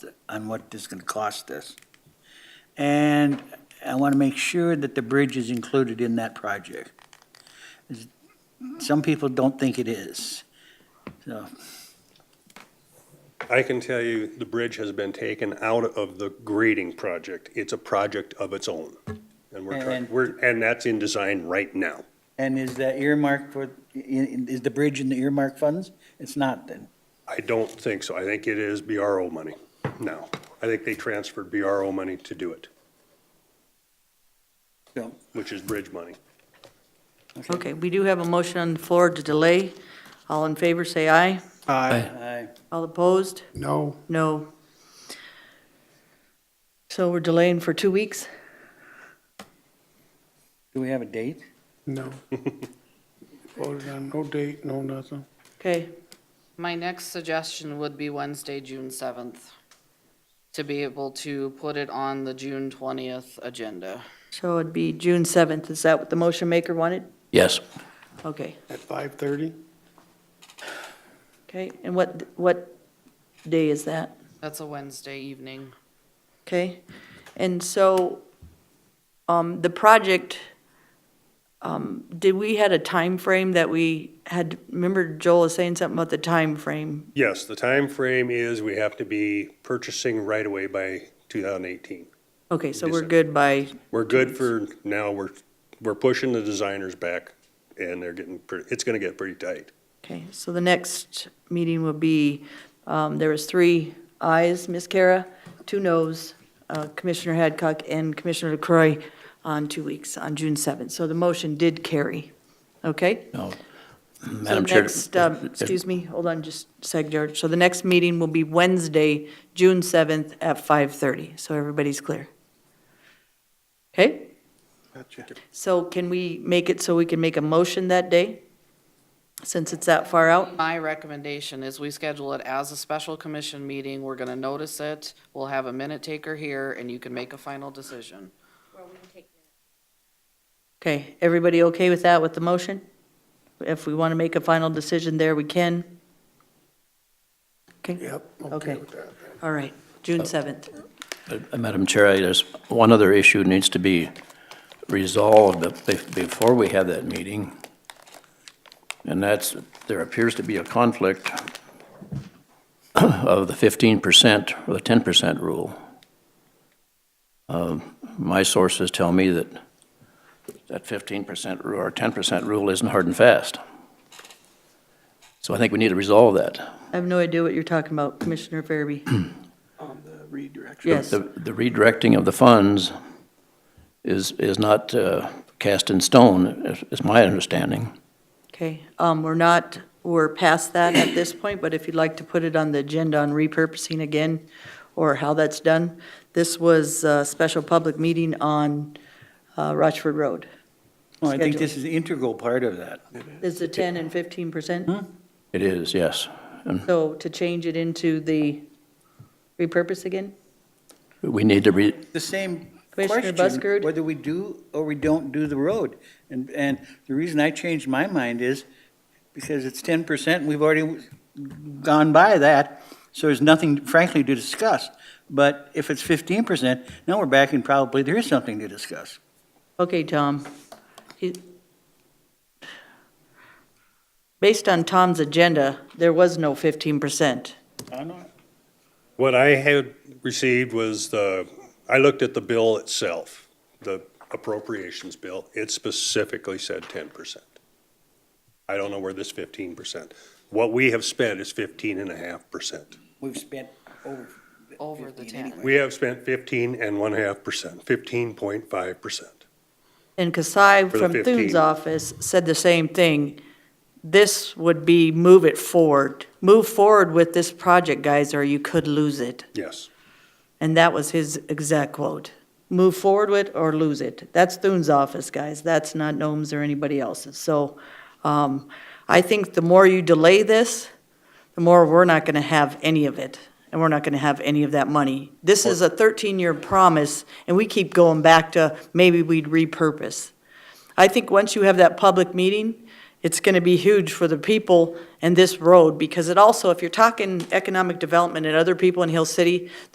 on what this is going to cost us. And I want to make sure that the bridge is included in that project. Some people don't think it is. So, I can tell you, the bridge has been taken out of the grading project. It's a project of its own. And we're trying, And- we're, and that's in design right now. and is that earmarked for, i- i- is the bridge in the earmark funds? It's not then. I don't think so. I think it is BRO money now. I think they transferred BRO money to do it, So, which is bridge money. Okay, we do have a motion on the floor to delay. All in favor, say aye. I- All opposed? No, No. So we're delaying for two weeks? do we have a date? no. Voted on no date, no nothing. Okay, My next suggestion would be Wednesday, June seventh, to be able to put it on the June twentieth agenda. so it'd be June 7th. Is that what the motion maker wanted? Yes. Okay, At five thirty? okay. And what, what day is that? That's a Wednesday evening. Okay, and so, um, the project, um, did we had a time frame that we had, remember Joel was saying something about the time frame? Yes, the time frame is we have to be purchasing right away by 2018. Okay, so we're December. good by, We're good for now. We're, we're pushing the designers back and they're getting, pretty- it's going to get pretty tight. okay, so the next meeting will be, um, there was three ayes, Ms. Kara, two noes, uh, Commissioner Hadcock and Commissioner LaCroy on two weeks, on June seventh. So the motion did carry, okay? No. So Madam Chair. next, um, excuse me, hold on just a sec, George. So the next meeting will be Wednesday, June 7th at 5:30, so everybody's clear. Okay? Gotcha. So can we make it so we can make a motion that day, since it's that far out? My recommendation is we schedule it as a special commission meeting. We're gonna notice it. We'll have a minute taker here and you can make a final decision. Okay, everybody okay with that, with the motion? If we want to make a final decision there, we can? Okay? Yep, Okay. okay with that. All right, June 7th. Uh, Madam Chair, I- there's one other issue needs to be resolved bef- before we have that meeting. And that's, there appears to be a conflict of the 15% or the 10% rule. Um, My sources tell me that that 15% rule or 10% rule isn't hard and fast. So I think we need to resolve that. I have no idea what you're talking about, Commissioner Farby. On Um, the redirection. Yes, The the redirecting of the funds is, is not uh, cast in stone, is- is my understanding. okay. Um, we're not, we're past that at this point, but if you'd like to put it on the agenda on repurposing again or how that's done, this was a special public meeting on, uh, Rochford Road. Well, I think this is the integral part of that. Is the ten and fifteen percent? It is, yes. So to change it into the repurpose again? We need to re, the same Commissioner question, Buschard? whether we do or we don't do the road. And, and the reason I changed my mind is because it's ten percent, we've already gone by that, so there's nothing frankly to discuss. But if it's fifteen percent, now we're back and probably there is something to discuss. Okay, Tom. He- Based on Tom's agenda, there was no fifteen percent. I know. What I had received was the, I looked at the bill itself, the appropriations bill. It specifically said ten percent. I don't know where this fifteen percent. What we have spent is fifteen and a half percent. We've spent over. Over the 15 anyway. We have spent fifteen and one half percent, fifteen point five percent. And Kasai For the from 15. Thune's office said the same thing. This would be move it forward. Move forward with this project, guys, or you could lose it. Yes. And that was his exact quote. Move forward with or lose it. That's Thune's office, guys. That's not Nome's or anybody else's. So um, I think the more you delay this, the more we're not going to have any of it, and we're not going to have any of that money. This is a 13-year promise, and we keep going back to maybe we'd repurpose. I think once you have that public meeting, it's going to be huge for the people and this road, because it also, if you're talking economic development and other people in Hill City,